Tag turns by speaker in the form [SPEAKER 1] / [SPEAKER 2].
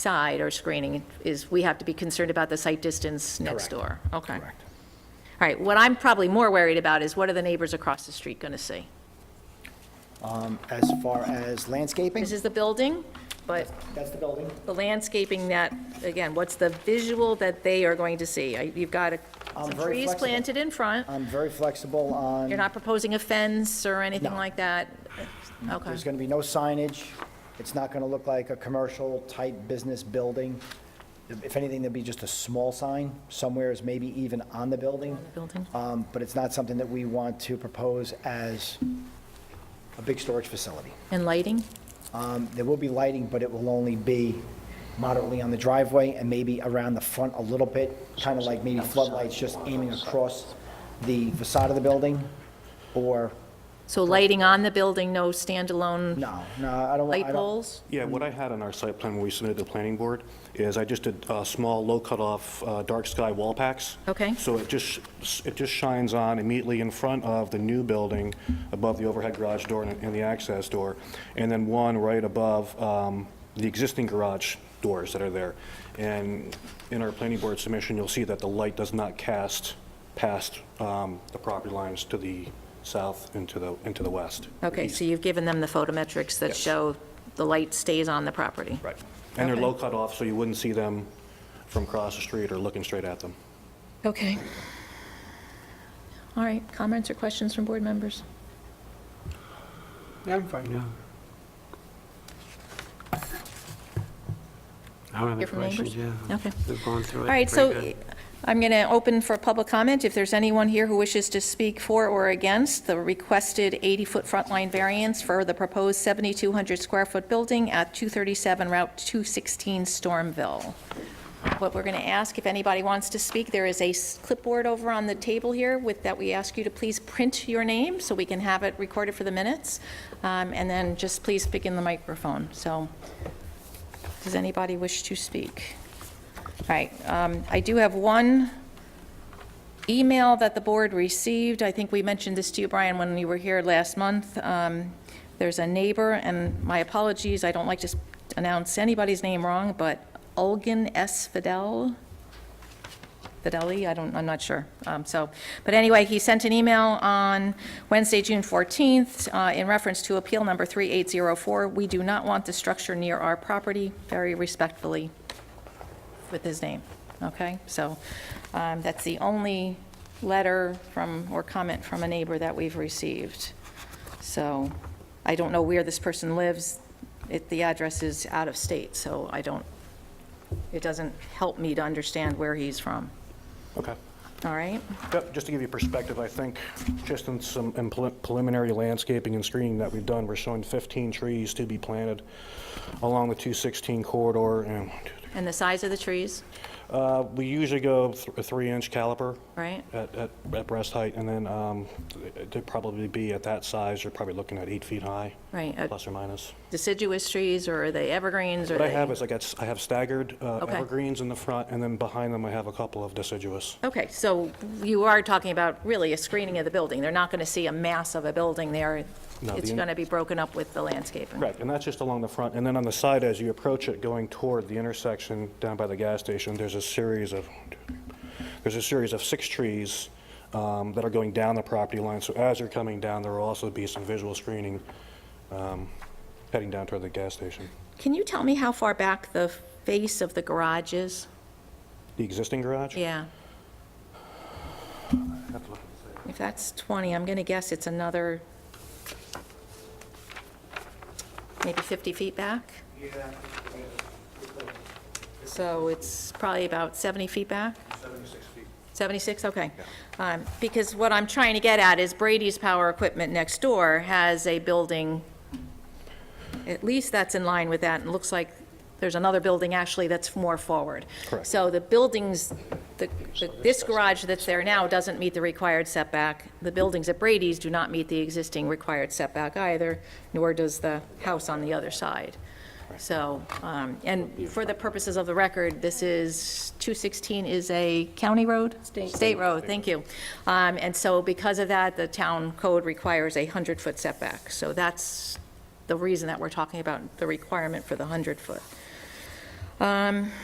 [SPEAKER 1] side or screening is, we have to be concerned about the site distance next door. Okay. All
[SPEAKER 2] Correct.
[SPEAKER 1] right, what I'm probably more worried about is what are the neighbors across the street going to see?
[SPEAKER 2] As far as landscaping,
[SPEAKER 1] This is the building, but
[SPEAKER 2] that's the building.
[SPEAKER 1] the landscaping that, again, what's the visual that they are going to see? I- You've got a-
[SPEAKER 2] I'm
[SPEAKER 1] some
[SPEAKER 2] very
[SPEAKER 1] trees
[SPEAKER 2] flexible.
[SPEAKER 1] planted in front.
[SPEAKER 2] I'm very flexible
[SPEAKER 1] You're
[SPEAKER 2] on,
[SPEAKER 1] not proposing a fence or anything
[SPEAKER 2] No.
[SPEAKER 1] like that? Okay.
[SPEAKER 2] there's going to be no signage. It's not going to look like a commercial-type business building. If anything, there'll be just a small sign somewhere is maybe even on the building.
[SPEAKER 1] Building?
[SPEAKER 2] Um, But it's not something that we want to propose as a big storage facility.
[SPEAKER 1] And lighting?
[SPEAKER 2] Um, There will be lighting, but it will only be moderately on the driveway and maybe around the front a little bit, kind of like maybe floodlights just aiming across the facade of the building, or,
[SPEAKER 1] So lighting on the building, no standalone
[SPEAKER 2] no, no, I don't.
[SPEAKER 1] light
[SPEAKER 2] I don't-
[SPEAKER 1] poles?
[SPEAKER 3] Yeah, what I had on our site plan when we submitted to the planning board is I just did uh, small, low cutoff, uh, dark sky wall packs.
[SPEAKER 1] Okay.
[SPEAKER 3] So it just, it just shines on immediately in front of the new building, above the overhead garage door and and the access door, and then one right above um, the existing garage doors that are there. And in our planning board submission, you'll see that the light does not cast past um, the property lines to the south and to the, and to the west.
[SPEAKER 1] Okay, so you've given them the photometrics that
[SPEAKER 3] Yes.
[SPEAKER 1] show the light stays on the property?
[SPEAKER 3] Right. And they're
[SPEAKER 1] Okay.
[SPEAKER 3] low cut off, so you wouldn't see them from across the street or looking straight at them.
[SPEAKER 1] Okay. All right, comments or questions from board members?
[SPEAKER 4] I'm fine now. I
[SPEAKER 1] Hear
[SPEAKER 4] don't have any
[SPEAKER 1] from neighbors?
[SPEAKER 4] questions, yeah.
[SPEAKER 1] Okay.
[SPEAKER 4] We've gone through it.
[SPEAKER 1] All right, so I'm going to open for public comment. If there's anyone here who wishes to speak for or against the requested 80-foot front line variance for the proposed 7,200-square-foot building at 237 Route 216 Stormville. What we're going to ask, if anybody wants to speak, there is a s- clipboard over on the table here with, that we ask you to please print your name so we can have it recorded for the minutes, Um, and then just please pick in the microphone. So, does anybody wish to speak? All right, um, I do have one email that the board received. I think we mentioned this to you, Brian, when you were here last month. Um, There's a neighbor, and my apologies, I don't like to s- announce anybody's name wrong, but Olgan S. Fidel, Fidelli, I don't, I'm not sure. Um, So, but anyway, he sent an email on Wednesday, June 14th, uh, in reference to appeal number 3804. We do not want the structure near our property, very respectfully, with his name, okay? So um, that's the only letter from, or comment from a neighbor that we've received. So I don't know where this person lives. It- The address is out of state, so I don't, it doesn't help me to understand where he's from,
[SPEAKER 3] Okay.
[SPEAKER 1] all right?
[SPEAKER 3] Yep, just to give you perspective, I think just in some in prelim- preliminary landscaping and screening that we've done, we're showing 15 trees to be planted along the 216 corridor. And one, two, three.
[SPEAKER 1] And the size of the trees,
[SPEAKER 3] Uh, We usually go th- a three-inch caliper
[SPEAKER 1] right?
[SPEAKER 3] at at at breast height, and then um, they'd probably be at that size, you're probably looking at eight feet high,
[SPEAKER 1] Right, uh,
[SPEAKER 3] plus or minus.
[SPEAKER 1] deciduous trees, or are they evergreens, or
[SPEAKER 3] What I
[SPEAKER 1] they?
[SPEAKER 3] have is I got, I have staggered uh,
[SPEAKER 1] Okay.
[SPEAKER 3] evergreens in the front, and then behind them I have a couple of deciduous.
[SPEAKER 1] Okay, so you are talking about really a screening of the building. They're not going to see a mass of a building there.
[SPEAKER 3] No,
[SPEAKER 1] It's
[SPEAKER 3] the-
[SPEAKER 1] going to be broken up with the landscaping.
[SPEAKER 3] Correct, and that's just along the front, and then on the side, as you approach it, going toward the intersection down by the gas station, there's a series of, there's a series of six trees um, that are going down the property line, so as you're coming down, there will also be some visual screening um, heading down toward the gas station.
[SPEAKER 1] Can you tell me how far back the face of the garage is?
[SPEAKER 3] The existing garage?
[SPEAKER 1] Yeah,
[SPEAKER 3] I have to look and see.
[SPEAKER 1] if that's 20, I'm going to guess it's another, maybe 50 feet back? Yeah. So it's probably about 70 feet back? 76 feet. 76, okay. Um, Because what I'm trying to get at is Brady's Power Equipment next door has a building, at least that's in line with that, and looks like there's another building actually that's more forward.
[SPEAKER 3] Correct.
[SPEAKER 1] So the buildings, the- the- this garage that's there now doesn't meet the required setback. The buildings at Brady's do not meet the existing required setback either, nor does the house on the other side. So, um, and for the purposes of the record, this is, 216 is a county road? State. road, thank you. Um, And so because of that, the town code requires a 100-foot setback. So that's the reason that we're talking about the requirement for the 100-foot. Um,